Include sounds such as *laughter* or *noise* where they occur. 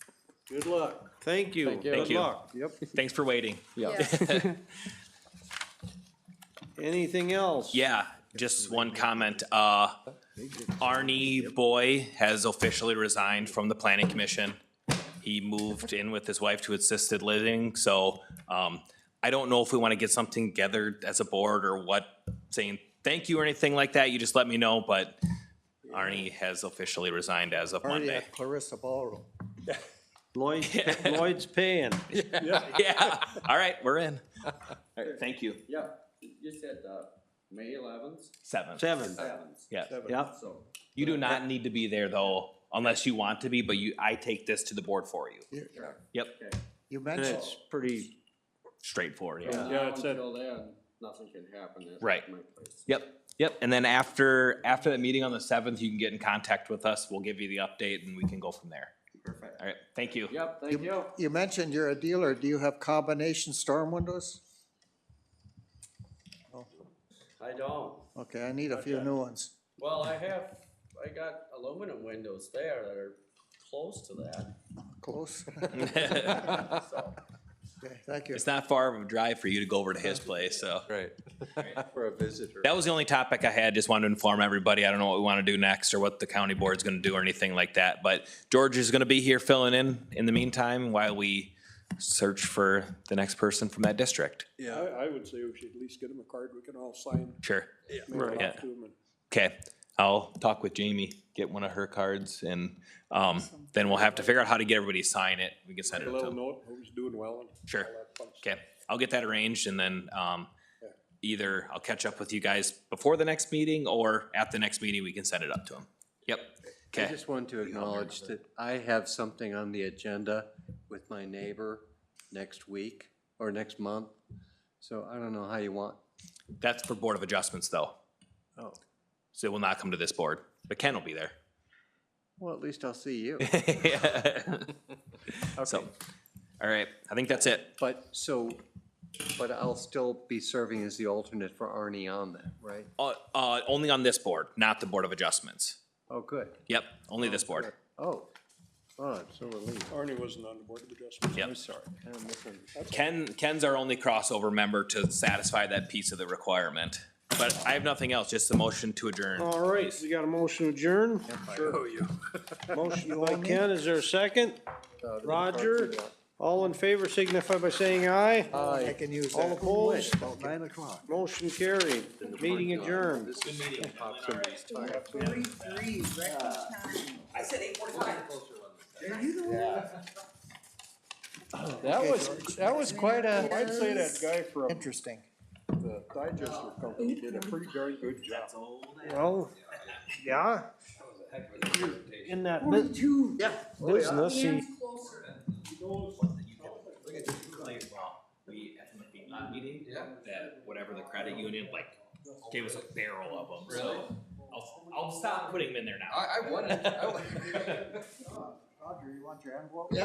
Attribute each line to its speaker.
Speaker 1: Good luck.
Speaker 2: Thank you.
Speaker 3: Thank you.
Speaker 2: Good
Speaker 3: Thank you.
Speaker 2: luck.
Speaker 1: Yep.
Speaker 3: Thanks for waiting.
Speaker 4: Yeah.
Speaker 2: Anything else?
Speaker 3: Yeah, just one comment. Uh, Arnie Boy has officially resigned from the planning commission. He moved in with his wife to assisted living, so, um, I don't know if we want to get something together as a board or what, saying thank you or anything like that. You just let me know, but Arnie has officially resigned as of
Speaker 1: Already
Speaker 3: Monday.
Speaker 1: at Clarissa Ballroom.
Speaker 2: Lloyd, *laughs* Lloyd's paying.
Speaker 3: *laughs* Yeah, all right, we're in. All right, thank you.
Speaker 5: Yeah, you said, uh, May eleventh,
Speaker 3: Seven.
Speaker 2: Seven.
Speaker 5: seventh,
Speaker 3: Yeah.
Speaker 2: Yep.
Speaker 5: so.
Speaker 3: You do not need to be there though, unless you want to be, but you, I take this to the board for you.
Speaker 5: yeah.
Speaker 3: Yep,
Speaker 5: Okay.
Speaker 1: You
Speaker 2: And
Speaker 1: mentioned,
Speaker 2: it's pretty,
Speaker 3: straightforward, yeah.
Speaker 5: From
Speaker 1: Yeah,
Speaker 5: now
Speaker 1: it said-
Speaker 5: Until then, nothing can happen at
Speaker 3: Right.
Speaker 5: my place.
Speaker 3: Yep, yep, and then after, after that meeting on the seventh, you can get in contact with us, we'll give you the update and we can go from there.
Speaker 5: Perfect.
Speaker 3: All right, thank you.
Speaker 5: Yep, thank you.
Speaker 1: you mentioned you're a dealer. Do you have combination storm windows?
Speaker 5: I don't.
Speaker 1: Okay, I need a few new ones.
Speaker 5: Well, I have, I got aluminum windows there that are close to that,
Speaker 1: Close. *laughs*
Speaker 5: so.
Speaker 1: Okay, Thank you.
Speaker 3: *laughs* It's not far of a drive for you to go over to his place, so.
Speaker 6: Right.
Speaker 3: *laughs*
Speaker 6: For a visitor.
Speaker 3: That was the only topic I had, just wanted to inform everybody, I don't know what we want to do next or what the county board's gonna do or anything like that, but George is gonna be here filling in, in the meantime, while we search for the next person from that district.
Speaker 7: I, I would say we should at least get him a card we can all sign.
Speaker 3: Sure.
Speaker 7: mail it
Speaker 3: Yeah.
Speaker 7: off to him, and
Speaker 3: Okay, I'll talk with Jamie, get one of her cards, and um, then we'll have to figure out how to get everybody to sign it. We can send it
Speaker 7: A
Speaker 3: to
Speaker 7: little
Speaker 3: them.
Speaker 7: note, who's doing well and
Speaker 3: Sure.
Speaker 7: all that fun stuff.
Speaker 3: Okay, I'll get that arranged, and then um, either I'll catch up with you guys before the next meeting, or at the next meeting, we can send it up to them. Yep,
Speaker 6: I
Speaker 3: okay,
Speaker 6: just want to acknowledge that I have something on the agenda with my neighbor next week or next month. So I don't know how you want,
Speaker 3: that's for Board of Adjustments, though.
Speaker 6: Oh.
Speaker 3: So it will not come to this board, but Ken will be there. *laughs*
Speaker 6: well, at least I'll see you.
Speaker 3: So, all right, I think that's it.
Speaker 6: But, so, but I'll still be serving as the alternate for Arnie on that, right?
Speaker 3: Uh, uh, Only on this board, not the Board of Adjustments.
Speaker 6: Oh, good.
Speaker 3: Yep, only this board.
Speaker 6: Oh, oh, I'm so relieved.
Speaker 7: Arnie wasn't on the board of adjustments.
Speaker 3: Yep.
Speaker 7: I'm sorry.
Speaker 6: Kind of misunderstood.
Speaker 3: Ken, Ken's our only crossover member to satisfy that piece of the requirement. But I have nothing else, just a motion to adjourn.
Speaker 2: all right, we got a motion to adjourn. Motion Uh, by Ken, is there a second? Roger, all in favor signify by saying aye.
Speaker 1: I can use that.
Speaker 2: All opposed?
Speaker 1: About nine o'clock.
Speaker 2: Motion carried, meeting adjourned.
Speaker 4: Forty-three, record time. I said eight forty-five. Are you the one?
Speaker 7: That was, that was quite
Speaker 4: a-
Speaker 7: I'd say that guy from
Speaker 1: Interesting.
Speaker 7: the digester company did a pretty darn good job.
Speaker 2: Well, yeah. In that bu-
Speaker 4: Forty-two.
Speaker 2: business, he-
Speaker 4: Hands closer.
Speaker 3: That whatever the credit union, like, gave us a barrel of them, so. I'll, I'll stop putting them in there now.
Speaker 5: I, I wanted, I wanted.
Speaker 1: Roger, you want your envelope?